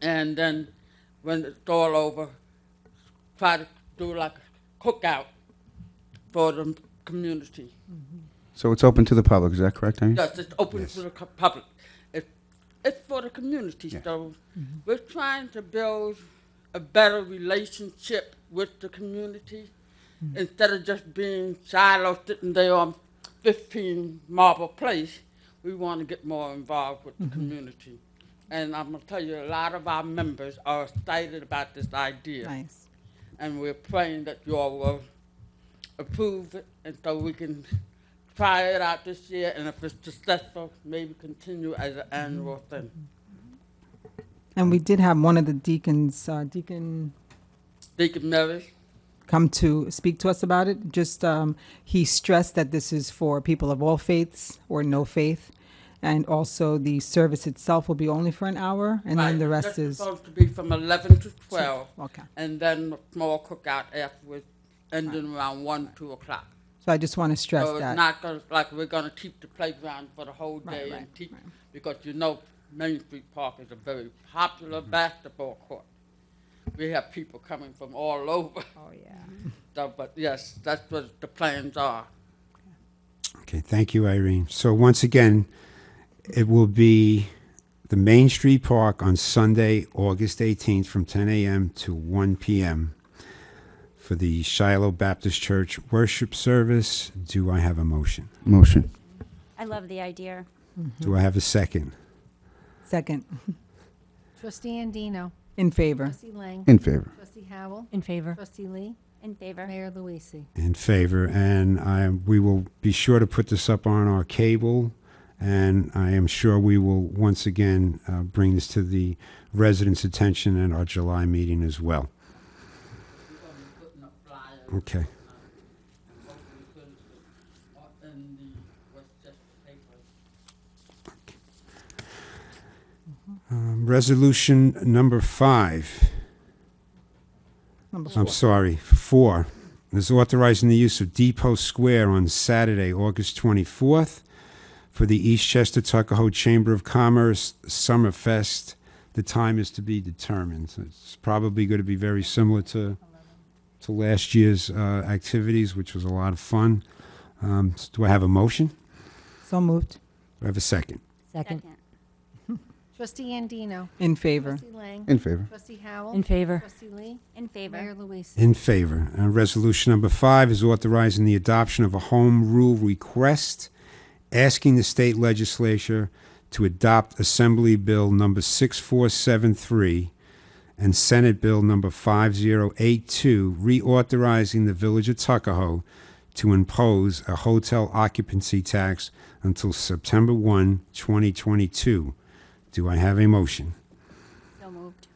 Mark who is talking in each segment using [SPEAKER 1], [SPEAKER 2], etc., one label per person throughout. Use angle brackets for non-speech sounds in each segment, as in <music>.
[SPEAKER 1] and then when it's all over, try to do like a cookout for the community.
[SPEAKER 2] So it's open to the public, is that correct, Amy?
[SPEAKER 1] Yes, it's open to the co- public. It, it's for the community,
[SPEAKER 2] Yeah.
[SPEAKER 1] so we're trying to build a better relationship with the community instead of just being siloed sitting there on 15 Marble Place. We want to get more involved with the community. And I'm going to tell you, a lot of our members are excited about this idea
[SPEAKER 3] Nice.
[SPEAKER 1] and we're praying that you all will approve it, and so we can try it out this year, and if it's successful, maybe continue as
[SPEAKER 3] Mm-hmm.
[SPEAKER 1] an annual thing.
[SPEAKER 3] And
[SPEAKER 1] Um,
[SPEAKER 3] we did have one of the deacons, uh, Deacon,
[SPEAKER 1] Deacon Mills,
[SPEAKER 3] come to speak to us about it. Just, um, he stressed that this is for people of all faiths or no faith. And also the service itself will be only for an hour and then the rest is,
[SPEAKER 1] supposed to be from eleven to twelve,
[SPEAKER 3] okay.
[SPEAKER 1] and then a small cookout afterwards, ending around one, two o'clock.
[SPEAKER 3] So I just want to stress
[SPEAKER 1] So Oh, it's
[SPEAKER 3] that.
[SPEAKER 1] not gonna, like, we're gonna keep the playground for the whole
[SPEAKER 3] Right,
[SPEAKER 1] day
[SPEAKER 3] right,
[SPEAKER 1] and keep,
[SPEAKER 3] right.
[SPEAKER 1] because you know Main Street Park is a very popular
[SPEAKER 3] Mm-hmm.
[SPEAKER 1] basketball court. We have people coming from all over.
[SPEAKER 4] Oh, yeah.
[SPEAKER 1] So, but yes, that's what the plans are.
[SPEAKER 2] Okay, thank you, Irene. So once again, it will be the Main Street Park on Sunday, August 18th, from 10 a.m. to 1 p.m. for the Shiloh Baptist Church worship service. Do I have a motion?
[SPEAKER 5] Motion.
[SPEAKER 4] I love the idea.
[SPEAKER 2] Do I have a second?
[SPEAKER 3] Second,
[SPEAKER 6] Trustee Andino.
[SPEAKER 3] in favor.
[SPEAKER 6] Trustee Lang.
[SPEAKER 5] In favor.
[SPEAKER 6] Trustee Howell.
[SPEAKER 7] In favor.
[SPEAKER 6] Trustee Lee.
[SPEAKER 4] In favor.
[SPEAKER 6] Mayor Luise.
[SPEAKER 2] In favor, and I we will be sure to put this up on our cable, and I am sure we will once again uh, bring this to the residents' attention at our July meeting as well. Okay.
[SPEAKER 1] uh,
[SPEAKER 2] Um, Resolution number five.
[SPEAKER 3] Number four.
[SPEAKER 2] I'm sorry, four, is authorizing the use of Depot Square on Saturday, August 24th for the Eastchester Tuckahoe Chamber of Commerce Summer Fest. The time is to be determined. So It's probably going to be very similar to, to last year's uh, activities, which was a lot of fun. Um, s- Do I have a motion?
[SPEAKER 3] So moved.
[SPEAKER 2] Do I have a second?
[SPEAKER 7] Second.
[SPEAKER 6] Trustee Andino.
[SPEAKER 3] In favor.
[SPEAKER 6] Trustee Lang.
[SPEAKER 5] In favor.
[SPEAKER 6] Trustee Howell.
[SPEAKER 7] In favor.
[SPEAKER 6] Trustee Lee.
[SPEAKER 4] In
[SPEAKER 6] Mayor
[SPEAKER 4] favor.
[SPEAKER 6] Luise.
[SPEAKER 2] In favor. Uh, Resolution number five is authorizing the adoption of a home rule request asking the state legislature to adopt Assembly Bill Number 6473 and Senate Bill Number 5082, reauthorizing the Village of Tuckahoe to impose a hotel occupancy tax until September 1, 2022. Do I have a motion?
[SPEAKER 4] So moved.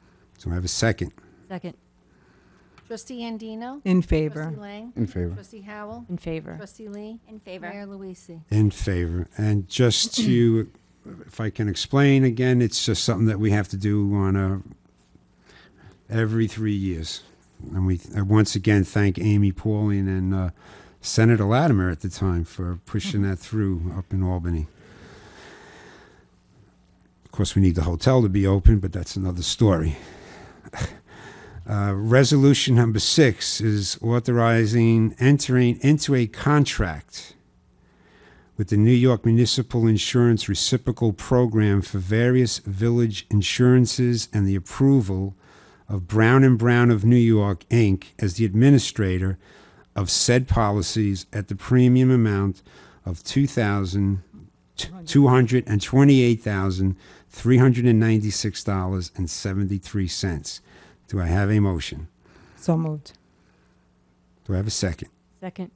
[SPEAKER 2] Do I have a second?
[SPEAKER 7] Second.
[SPEAKER 6] Trustee Andino.
[SPEAKER 3] In
[SPEAKER 6] Trustee
[SPEAKER 3] favor.
[SPEAKER 6] Lang.
[SPEAKER 5] In favor.
[SPEAKER 6] Trustee Howell.
[SPEAKER 7] In favor.
[SPEAKER 6] Trustee Lee.
[SPEAKER 4] In favor.
[SPEAKER 6] Mayor Luise.
[SPEAKER 2] In favor. And just to, if I can explain again, it's just something that we have to do on a, every three years. And we, I once again, thank Amy Pauling and uh, Senator Latimer at the time for pushing that through up in Albany. Of course, we need the hotel to be open, but that's another story. <laughs> Uh, Resolution number six is authorizing entering into a contract with the New York Municipal Insurance Reciprocal Program for various village insurances and the approval of Brown and Brown of New York, Inc. as the administrator of said policies at the premium amount of two thousand two hundred and twenty-eight thousand three hundred and ninety-six dollars and seventy-three cents. Do I have a motion?
[SPEAKER 3] So moved.
[SPEAKER 2] Do I have a second?
[SPEAKER 7] Second.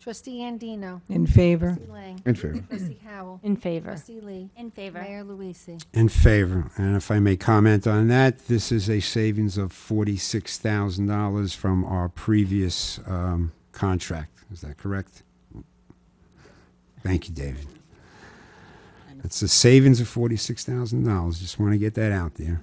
[SPEAKER 6] Trustee Andino.
[SPEAKER 3] In favor.
[SPEAKER 6] Trustee Lang.
[SPEAKER 5] In favor.
[SPEAKER 6] Trustee Howell.
[SPEAKER 7] In favor.
[SPEAKER 6] Trustee Lee.
[SPEAKER 4] In favor.
[SPEAKER 6] Mayor Luise.
[SPEAKER 2] In favor. And if I may comment on that, this is a savings of forty-six thousand dollars from our previous um, contract. Is that correct? Thank you, David. It's a savings of forty-six thousand dollars. Just want to get that out there.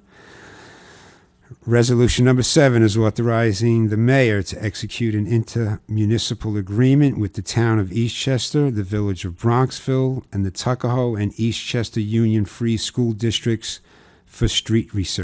[SPEAKER 2] Resolution number seven is authorizing the mayor to execute an intermunicipal agreement with the town of Eastchester, the village of Bronxville, and the Tuckahoe and Eastchester Union Free School Districts for street research.